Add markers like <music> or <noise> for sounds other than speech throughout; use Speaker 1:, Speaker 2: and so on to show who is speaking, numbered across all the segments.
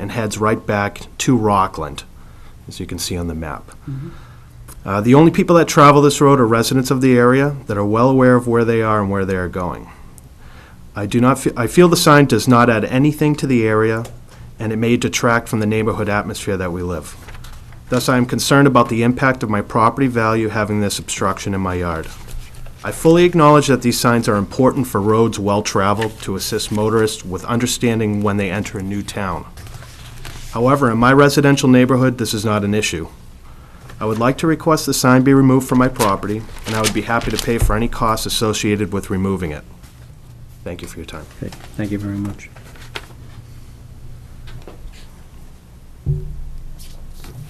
Speaker 1: and heads right back to Rockland, as you can see on the map. Uh, The only people that travel this road are residents of the area that are well aware of where they are and where they are going. I do not, fe- I feel the sign does not add anything to the area, and it may detract from the neighborhood atmosphere that we live. Thus, I am concerned about the impact of my property value having this obstruction in my yard. I fully acknowledge that these signs are important for roads well-traveled to assist motorists with understanding when they enter a new town. However, in my residential neighborhood, this is not an issue. I would like to request the sign be removed from my property, and I would be happy to pay for any costs associated with removing it. Thank you for your time.
Speaker 2: Okay, thank you very much.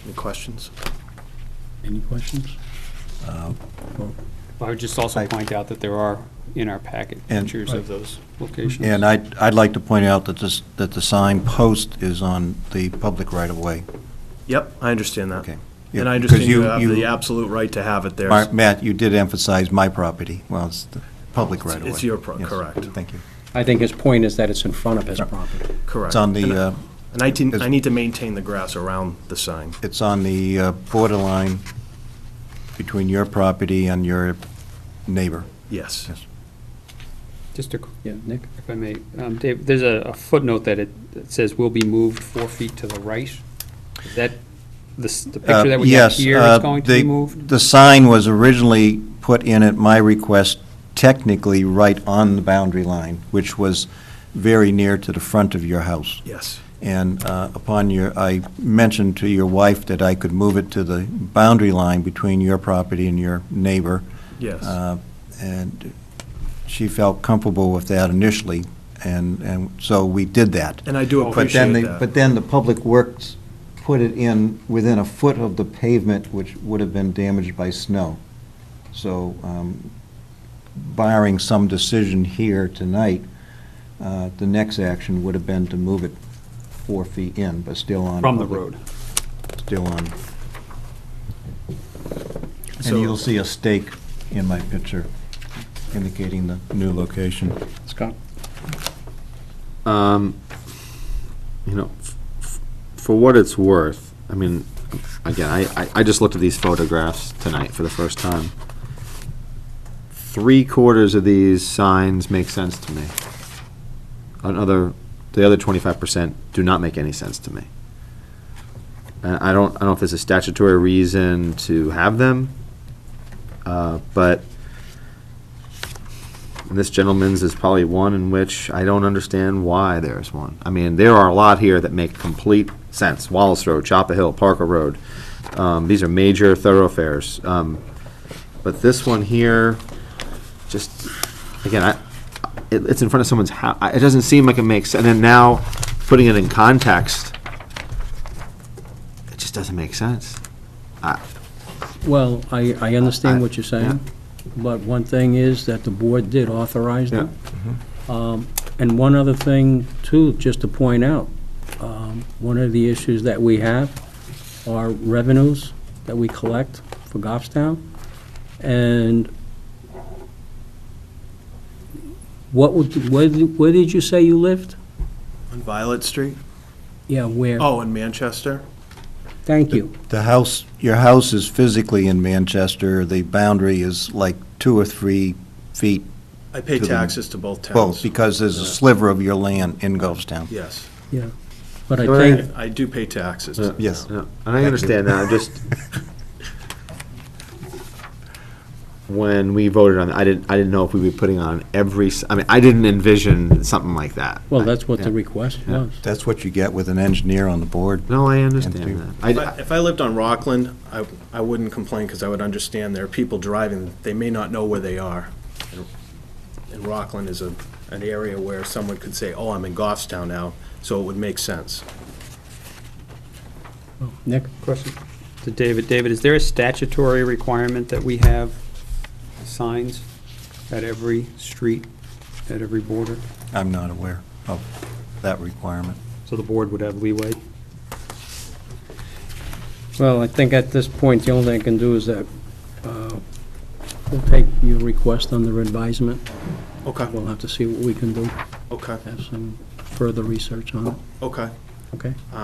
Speaker 1: Any questions?
Speaker 2: Any questions?
Speaker 3: I would just also
Speaker 4: I-
Speaker 3: point out that there are in our packet
Speaker 4: And-
Speaker 3: pictures of those locations.
Speaker 4: And I'd, I'd like to point out that this, that the sign post is on the public right-of-way.
Speaker 1: Yep, I understand that.
Speaker 4: Okay.
Speaker 1: And I
Speaker 4: Yeah,
Speaker 1: understand
Speaker 4: because
Speaker 1: you have
Speaker 4: you-
Speaker 1: the absolute right to have it there.
Speaker 4: Mar- Matt, you did emphasize my property. Well, it's the public
Speaker 1: It's-
Speaker 4: right-of-way.
Speaker 1: it's your pro-
Speaker 4: Yes.
Speaker 1: correct.
Speaker 4: Thank you.
Speaker 2: I think his point is that it's in front of his property.
Speaker 1: Correct.
Speaker 4: It's on
Speaker 1: And
Speaker 4: the,
Speaker 1: I-
Speaker 4: uh,
Speaker 1: And I tin-
Speaker 4: is-
Speaker 1: I need to maintain the grass around the sign.
Speaker 4: it's on the uh, borderline between your property and your neighbor.
Speaker 1: Yes.
Speaker 4: Yes.
Speaker 3: Just a qu-
Speaker 2: Yeah, Nick?
Speaker 3: if I may, um, Dave, there's a a footnote that it that says will be moved four feet to the right. Is that the s- the
Speaker 4: Uh,
Speaker 3: picture that we have
Speaker 4: yes,
Speaker 3: here
Speaker 4: uh,
Speaker 3: is going to be
Speaker 4: the-
Speaker 3: moved?
Speaker 4: The sign was originally put in at my request technically right on the boundary line, which was very near to the front of your house.
Speaker 1: Yes.
Speaker 4: And uh, upon your, I mentioned to your wife that I could move it to the boundary line between your property and your neighbor.
Speaker 1: Yes.
Speaker 4: Uh, And she felt comfortable with that initially, and, and so we did that.
Speaker 1: And I do
Speaker 4: But then,
Speaker 1: appreciate
Speaker 4: the-
Speaker 1: that.
Speaker 4: but then the Public Works put it in within a foot of the pavement, which would have been damaged by snow. So um, barring some decision here tonight, uh, the next action would have been to move it four feet in, but still on.
Speaker 3: From the
Speaker 4: public-
Speaker 3: road.
Speaker 4: Still on. And
Speaker 1: So-
Speaker 4: you'll see a stake in my picture indicating the new location.
Speaker 2: Scott?
Speaker 5: Um, you know, f- f- for what it's worth, I mean, again, I, I, I just looked at these photographs tonight for the first time. Three quarters of these signs make sense to me. Another, the other twenty-five percent do not make any sense to me. And I don't, I don't know if there's a statutory reason to have them, uh, but and this gentleman's is probably one in which I don't understand why there's one. I mean, there are a lot here that make complete sense. Wallace Road, Chapel Hill, Parker Road. Um, these are major thoroughfares. Um, but this one here, just, again, I, it, it's in front of someone's house. It doesn't seem like it makes, and then now putting it in context, it just doesn't make sense.
Speaker 2: Well, I, I understand what you're
Speaker 5: Yeah.
Speaker 2: saying, but one thing is that the board did authorize them. Um, And one other thing, too, just to point out, um, one of the issues that we have are revenues that we collect for Goffstown, and what would, where, did- where did you say you lived?
Speaker 1: On Violet Street?
Speaker 2: Yeah, where?
Speaker 1: Oh, in Manchester?
Speaker 2: Thank you.
Speaker 4: The house, your house is physically in Manchester, the boundary is like two or three feet
Speaker 1: I pay
Speaker 4: To the-
Speaker 1: taxes to both
Speaker 4: Both,
Speaker 1: towns.
Speaker 4: because there's a sliver of your land in Goffstown.
Speaker 1: Yes.
Speaker 2: But I
Speaker 5: Go ahead.
Speaker 2: think,
Speaker 1: I I do pay taxes. to
Speaker 5: Yeah.
Speaker 1: the
Speaker 4: Yes.
Speaker 1: town.
Speaker 5: Yeah, and I understand that, I'm just, <laughs> when we voted on, it, I didn't, I didn't know if we'd be putting on every, s- I mean, I didn't envision something like that.
Speaker 2: well, that's what the
Speaker 5: Yeah.
Speaker 2: request
Speaker 5: Yeah.
Speaker 2: was.
Speaker 4: That's what you get with an engineer on the board.
Speaker 5: No, I understand that. I-
Speaker 1: If I- If I lived on Rockland, I, I wouldn't complain because I would understand there are people driving, they may not know where they are. And- And Rockland is a, an area where someone could say, oh, I'm in Goffstown now, so it would make sense.
Speaker 2: Oh, Nick?
Speaker 3: Question to David. David, is there a statutory requirement that we have signs at every street, at every border?
Speaker 4: I'm not aware of that requirement.
Speaker 3: So the board would have leeway?
Speaker 2: Well, I think at this point, the only thing I can do is that uh, we'll take your request under advisement.
Speaker 1: Okay,
Speaker 2: We'll have to see what we can do,
Speaker 1: okay,
Speaker 2: have some further research on it,
Speaker 1: okay.
Speaker 2: okay?